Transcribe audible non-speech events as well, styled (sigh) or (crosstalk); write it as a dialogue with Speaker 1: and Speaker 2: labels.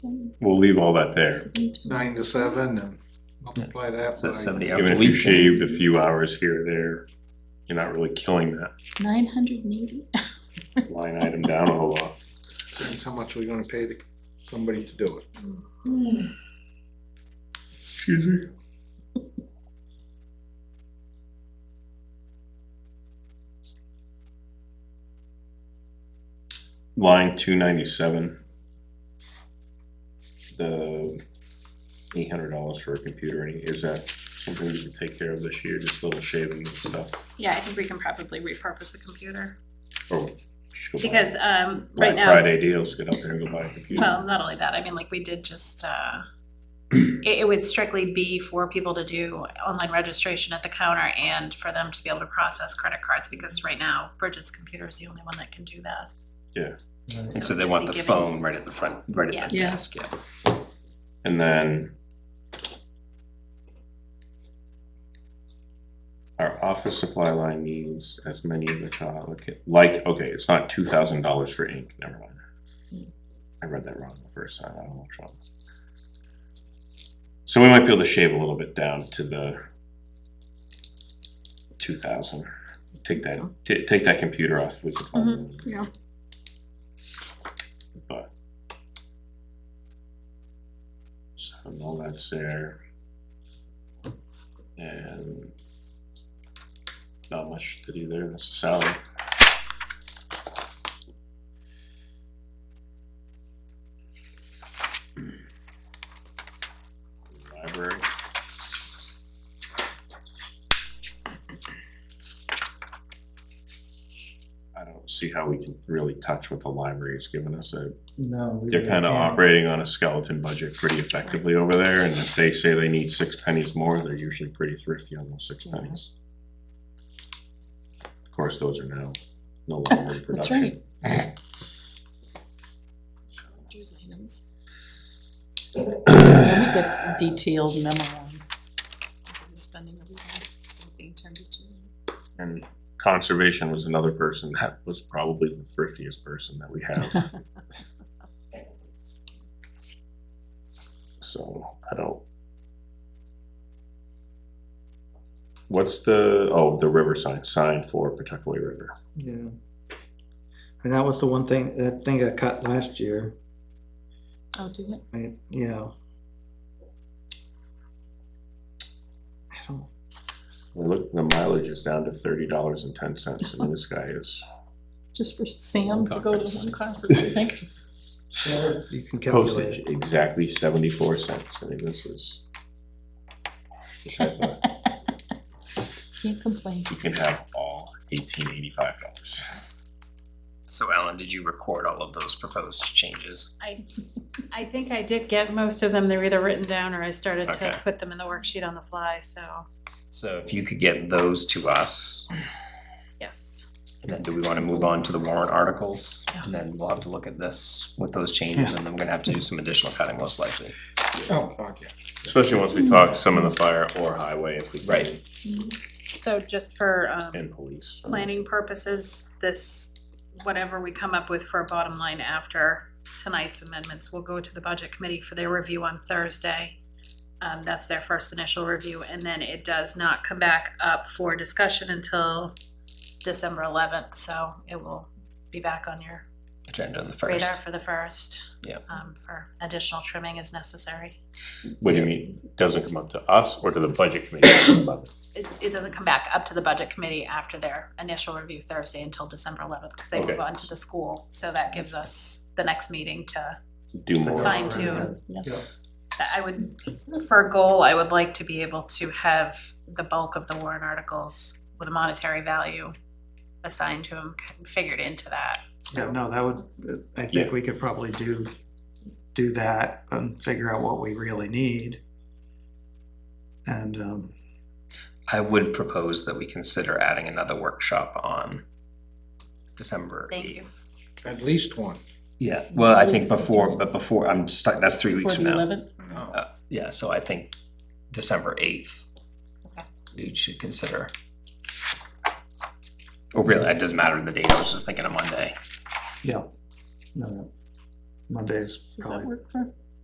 Speaker 1: We'll leave all that there.
Speaker 2: nine to seven and multiply that
Speaker 3: So that's
Speaker 2: by,
Speaker 3: seventy hours
Speaker 1: Even
Speaker 3: a
Speaker 1: if you
Speaker 3: week.
Speaker 1: shaved a few hours here or there, you're not really killing that
Speaker 4: Nine hundred and eighty?
Speaker 1: line item down a whole lot.
Speaker 2: depends how much we're gonna pay the, somebody to do it.
Speaker 1: Excuse me? Line two ninety-seven. The eight hundred dollars for a computer, any- is that something we can take care of this year, just little shaving and stuff?
Speaker 5: Yeah, I think we can probably repurpose a computer,
Speaker 1: Or just go buy
Speaker 5: because, um, right
Speaker 1: Black
Speaker 5: now,
Speaker 1: Friday deals, get out there and go buy a computer.
Speaker 5: well, not only that, I mean, like, we did just, uh, it, it would strictly be for people to do online registration at the counter and for them to be able to process credit cards, because right now, Bridget's computer is the only one that can do that.
Speaker 3: And so they
Speaker 5: just
Speaker 3: want
Speaker 5: be
Speaker 3: the
Speaker 5: giving-
Speaker 3: phone right at the front, right at the
Speaker 4: Yeah. Yeah.
Speaker 3: desk, yeah.
Speaker 1: And then our office supply line needs as many of the, co- like- like, okay, it's not two thousand dollars for ink, never mind. I read that wrong the first time, I don't know what's wrong. So we might be able to shave a little bit down to the two thousand, take that, ta- take that computer off, we could find it.
Speaker 4: yeah.
Speaker 1: But. So all that's there. And not much to do there, that's a salary. Library. I don't see how we can really touch what the library has given us, I
Speaker 6: No.
Speaker 1: they're kind of operating on a skeleton budget pretty effectively over there, and if they say they need six pennies more, they're usually pretty thrifty on those six pennies. Of course, those are now
Speaker 4: (coughs)
Speaker 1: no longer in
Speaker 4: That's
Speaker 1: production.
Speaker 4: Choose items. Let me get detailed memo on the spending that we had, being turned into.
Speaker 1: And conservation was another person that was probably the thriftiest person that we have. So, I don't. What's the, oh, the river sign, sign for Pawtuckaway River.
Speaker 6: Yeah. And that was the one thing, that thing got cut last year,
Speaker 4: Oh, do it?
Speaker 6: I, yeah. I don't,
Speaker 1: We look, the mileage is down to thirty dollars and ten cents, I mean, this guy is
Speaker 4: Just for Sam to go to
Speaker 1: Conference.
Speaker 4: one conference, I think.
Speaker 6: you can
Speaker 1: postage
Speaker 6: calculate.
Speaker 1: exactly seventy-four cents, I mean, this is. the type of-
Speaker 4: Can't complain.
Speaker 1: You can have all eighteen eighty-five dollars.
Speaker 3: So Alan, did you record all of those proposed changes?
Speaker 5: I, I think I did get most of them, they're either written down or I started
Speaker 3: Okay.
Speaker 5: to put them in the worksheet on the fly, so,
Speaker 3: So if you could get those to us,
Speaker 5: yes.
Speaker 3: and then do we want to move on to the warrant articles? And then we'll have to look at this with those changes, and then we're gonna have to do some additional cutting most likely.
Speaker 2: Oh, fuck yeah.
Speaker 1: Especially once we talk some of the fire or highway if we.
Speaker 3: Right.
Speaker 5: So just for, um,
Speaker 1: And police.
Speaker 5: planning purposes, this, whatever we come up with for a bottom line after tonight's amendments will go to the budget committee for their review on Thursday. Um, that's their first initial review, and then it does not come back up for discussion until December eleventh, so it will be back on your
Speaker 3: Agenda on the first.
Speaker 5: radar for the first.
Speaker 3: Yep.
Speaker 5: Um, for additional trimming as necessary.
Speaker 1: What do you mean, doesn't come up to us or to the budget committee?
Speaker 5: It, it doesn't come back up to the budget committee after their initial review Thursday until December eleventh, because they
Speaker 1: Okay.
Speaker 5: move on to the school. So that gives us the next meeting to,
Speaker 1: Do more.
Speaker 5: fine tune.
Speaker 4: Yeah.
Speaker 5: I would, for a goal, I would like to be able to have the bulk of the warrant articles with a monetary value assigned to them, figured into that.
Speaker 6: Yeah, no, that would, I think
Speaker 1: Yeah.
Speaker 6: we could probably do, do that and figure out what we really need. And, um,
Speaker 3: I would propose that we consider adding another workshop on December
Speaker 5: Thank you.
Speaker 3: eighth.
Speaker 2: At least one.
Speaker 3: Yeah, well, I think
Speaker 4: Yes, that's
Speaker 3: before,
Speaker 4: right.
Speaker 3: but before, I'm stuck, that's three
Speaker 4: For
Speaker 3: weeks from
Speaker 4: the
Speaker 3: now.
Speaker 4: eleventh,
Speaker 2: No.
Speaker 3: Uh, Yeah, so I think December eighth.
Speaker 5: Okay.
Speaker 3: We should consider. Oh, really? It doesn't matter the date, I was just thinking of Monday.
Speaker 6: yeah. No, no. Monday is
Speaker 4: does that
Speaker 6: probably
Speaker 4: work for